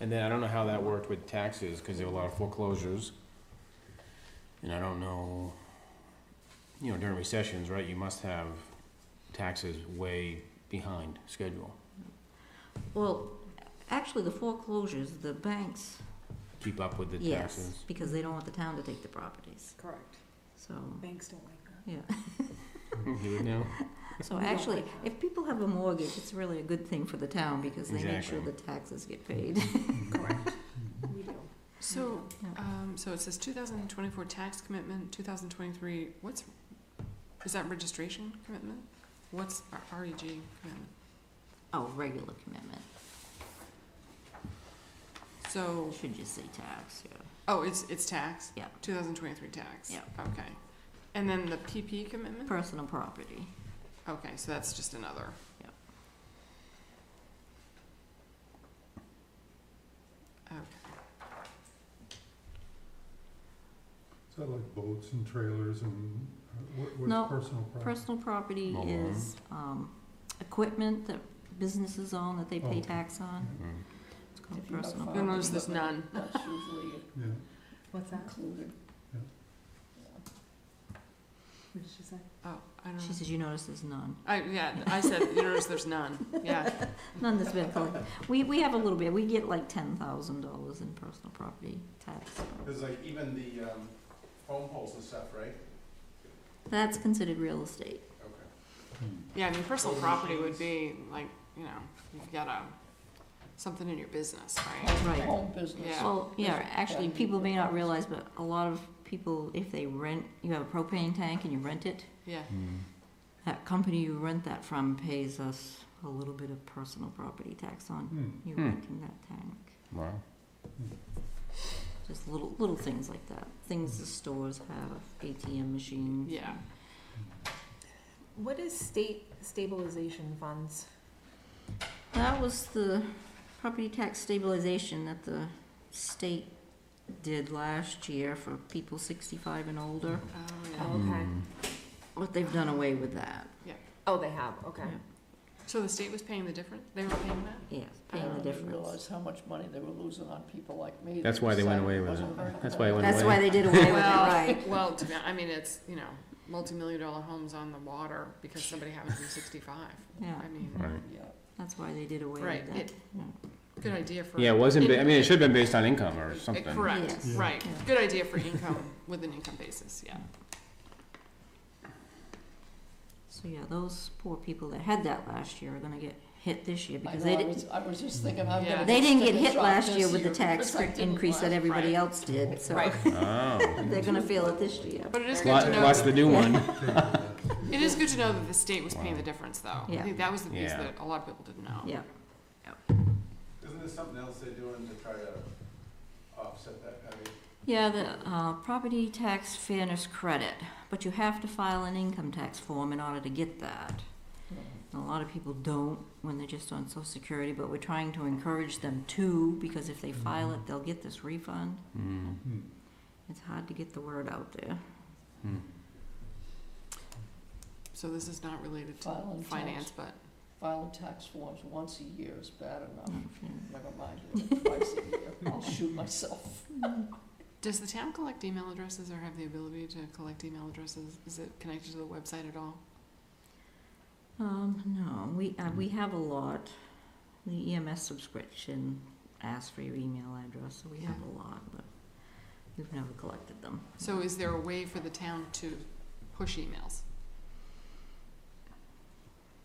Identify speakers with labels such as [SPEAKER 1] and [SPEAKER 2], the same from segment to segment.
[SPEAKER 1] And then I don't know how that worked with taxes, because there were a lot of foreclosures. And I don't know, you know, during recessions, right, you must have taxes way behind schedule.
[SPEAKER 2] Well, actually, the foreclosures, the banks,
[SPEAKER 1] Keep up with the
[SPEAKER 2] yes,
[SPEAKER 1] taxes.
[SPEAKER 2] because they don't want the town to take the properties,
[SPEAKER 3] Correct.
[SPEAKER 2] so,
[SPEAKER 3] Banks don't like that.
[SPEAKER 2] yeah.
[SPEAKER 1] You would know?
[SPEAKER 2] So
[SPEAKER 3] We don't
[SPEAKER 2] actually,
[SPEAKER 3] like that.
[SPEAKER 2] if people have a mortgage, it's really a good thing for the town, because they make sure
[SPEAKER 1] Exactly.
[SPEAKER 2] the taxes get paid.
[SPEAKER 3] Correct. We do.
[SPEAKER 4] So,
[SPEAKER 2] Yeah.
[SPEAKER 4] um, so it says two thousand and twenty-four tax commitment, two thousand twenty-three, what's, is that registration commitment? What's our REG commitment?
[SPEAKER 2] Oh, regular commitment,
[SPEAKER 4] So,
[SPEAKER 2] should just say tax, yeah.
[SPEAKER 4] oh, it's, it's tax?
[SPEAKER 2] Yeah.
[SPEAKER 4] Two thousand twenty-three tax?
[SPEAKER 2] Yeah.
[SPEAKER 4] Okay. And then the PP commitment?
[SPEAKER 2] Personal property,
[SPEAKER 4] Okay, so that's just another.
[SPEAKER 2] Yeah.
[SPEAKER 4] Okay,
[SPEAKER 5] Is that like boats and trailers and uh, what,
[SPEAKER 2] No,
[SPEAKER 5] what's personal property?
[SPEAKER 2] personal property
[SPEAKER 1] Mobile home.
[SPEAKER 2] is, um, equipment that businesses own that they pay
[SPEAKER 5] Oh.
[SPEAKER 2] tax on,
[SPEAKER 1] Mm.
[SPEAKER 2] it's called
[SPEAKER 6] If you have
[SPEAKER 2] personal.
[SPEAKER 6] farm
[SPEAKER 4] then
[SPEAKER 2] property.
[SPEAKER 4] there's, there's none.
[SPEAKER 6] That's usually
[SPEAKER 5] Yeah,
[SPEAKER 3] What's that?
[SPEAKER 6] included.
[SPEAKER 5] Yeah.
[SPEAKER 3] What did she say?
[SPEAKER 4] Oh, I don't
[SPEAKER 2] She
[SPEAKER 4] know.
[SPEAKER 2] says, you notice there's none.
[SPEAKER 4] I, yeah, I said, you notice there's none, yeah.
[SPEAKER 2] None that's been collected. We, we have a little bit, we get like ten thousand dollars in personal property tax.
[SPEAKER 7] Because like even the um, phone poles and stuff, right?
[SPEAKER 2] That's considered real estate.
[SPEAKER 7] Okay.
[SPEAKER 4] Yeah, I mean, personal property would be like, you know, you've got a, something in your business, right?
[SPEAKER 2] Right.
[SPEAKER 6] Home business.
[SPEAKER 4] Yeah.
[SPEAKER 2] Well, yeah, actually, people may not realize, but a lot of people, if they rent, you have a propane tank and you rent it,
[SPEAKER 4] Yeah,
[SPEAKER 1] Mm.
[SPEAKER 2] that company you rent that from pays us a little bit of personal property tax on
[SPEAKER 5] hmm,
[SPEAKER 2] you
[SPEAKER 1] Hmm.
[SPEAKER 2] renting that tank.
[SPEAKER 1] Wow.
[SPEAKER 2] Just little, little things like that. Things the stores have, ATM machines.
[SPEAKER 4] yeah.
[SPEAKER 3] What is state stabilization funds?
[SPEAKER 2] That was the property tax stabilization that the state did last year for people sixty-five and older,
[SPEAKER 4] Oh, yeah.
[SPEAKER 3] Okay.
[SPEAKER 1] Mm.
[SPEAKER 2] but they've done away with that.
[SPEAKER 3] Oh, they have, okay.
[SPEAKER 4] So the state was paying the difference? They were paying that?
[SPEAKER 2] Yes, paying the
[SPEAKER 6] I didn't
[SPEAKER 2] difference.
[SPEAKER 6] realize how much money they were losing on people like me.
[SPEAKER 1] That's why they went away with
[SPEAKER 6] decided wasn't
[SPEAKER 1] it. That's why it went away.
[SPEAKER 2] That's why they did away with it,
[SPEAKER 4] Well,
[SPEAKER 2] right.
[SPEAKER 4] Well, to be, I mean, it's, you know, multi-million dollar homes on the water because somebody happened to be sixty-five.
[SPEAKER 2] Yeah,
[SPEAKER 4] I mean,
[SPEAKER 1] Right.
[SPEAKER 6] Yeah,
[SPEAKER 2] that's why they did away
[SPEAKER 4] right,
[SPEAKER 2] with that.
[SPEAKER 4] it, good idea for.
[SPEAKER 1] Yeah, it wasn't, ba- I mean, it should have been based on income or
[SPEAKER 4] it-
[SPEAKER 1] something.
[SPEAKER 4] Correct,
[SPEAKER 2] Yes.
[SPEAKER 5] Yeah.
[SPEAKER 4] right.
[SPEAKER 2] Yeah.
[SPEAKER 4] Good idea for income, with an income basis, yeah.
[SPEAKER 2] So, yeah, those poor people that had that last year are gonna get hit this year
[SPEAKER 6] I
[SPEAKER 2] because
[SPEAKER 6] know,
[SPEAKER 2] they
[SPEAKER 6] I
[SPEAKER 2] didn't,
[SPEAKER 6] was, I was just thinking, I'm
[SPEAKER 4] Yeah.
[SPEAKER 6] gonna.
[SPEAKER 2] they didn't get
[SPEAKER 6] take a
[SPEAKER 2] hit
[SPEAKER 6] shot
[SPEAKER 2] last
[SPEAKER 6] this
[SPEAKER 2] year with the tax
[SPEAKER 6] because I didn't
[SPEAKER 2] increase that
[SPEAKER 6] last.
[SPEAKER 2] everybody
[SPEAKER 4] Right.
[SPEAKER 2] else did, so
[SPEAKER 3] Right.
[SPEAKER 1] Oh.
[SPEAKER 2] they're gonna feel it this year.
[SPEAKER 4] But it is good
[SPEAKER 1] Lot-
[SPEAKER 4] to know.
[SPEAKER 1] Lots
[SPEAKER 4] that-
[SPEAKER 1] to do one.
[SPEAKER 4] It is good to know that the state was paying
[SPEAKER 1] Wow.
[SPEAKER 4] the difference, though. I
[SPEAKER 2] Yeah.
[SPEAKER 4] think that was the piece
[SPEAKER 1] Yeah.
[SPEAKER 4] that a lot of people didn't know.
[SPEAKER 2] Yeah,
[SPEAKER 7] Isn't there something else they're doing to try to offset that? I mean,
[SPEAKER 2] yeah, the, uh, property tax fairness credit, but you have to file an income tax form in order to get that. A lot of people don't when they're just on social security, but we're trying to encourage them to, because if they file it, they'll get this refund.
[SPEAKER 1] Mm.
[SPEAKER 5] hmm.
[SPEAKER 2] It's hard to get the word out there.
[SPEAKER 1] Mm.
[SPEAKER 4] So this is not related to
[SPEAKER 6] Filing tax-
[SPEAKER 4] finance, but
[SPEAKER 6] Filing tax forms once a year is bad enough, never mind doing it twice a year, I'll shoot myself.
[SPEAKER 4] does the town collect email addresses or have the ability to collect email addresses? Is it connected to the website at all?
[SPEAKER 2] Um, no, we, uh, we have a lot. The EMS subscription asks for your email address, so we have a lot, but we've never collected them.
[SPEAKER 4] So is there a way for the town to push emails?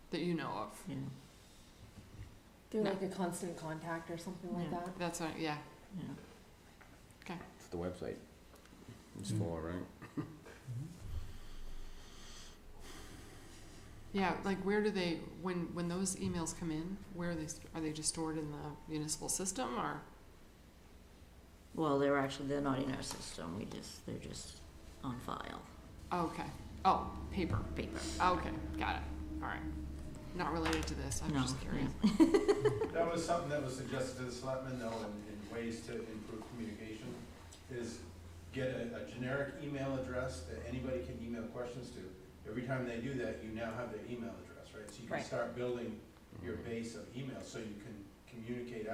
[SPEAKER 4] That you know of?
[SPEAKER 2] Yeah,
[SPEAKER 3] They're
[SPEAKER 4] No.
[SPEAKER 3] like a constant contact or something like
[SPEAKER 2] Yeah.
[SPEAKER 3] that?
[SPEAKER 4] That's what, yeah,
[SPEAKER 2] yeah.
[SPEAKER 1] It's the website. It's
[SPEAKER 5] Mm.
[SPEAKER 1] for, right?
[SPEAKER 4] yeah, like where do they, when, when those emails come in, where are they, st- are they just stored in the municipal system or?
[SPEAKER 2] Well, they're actually, they're not in our system, we just, they're just on file,
[SPEAKER 4] Okay, oh, paper,
[SPEAKER 2] paper.
[SPEAKER 4] okay, got it, alright. Not related to this, I'm
[SPEAKER 2] No,
[SPEAKER 4] just curious.
[SPEAKER 7] That was something that was suggested to the selectmen though, in, in ways to improve communication, is get a, a generic email address that anybody can email questions to. Every time they do that, you now have their email address, right? So you can
[SPEAKER 3] Right.
[SPEAKER 7] start building your base of email, so you can communicate out.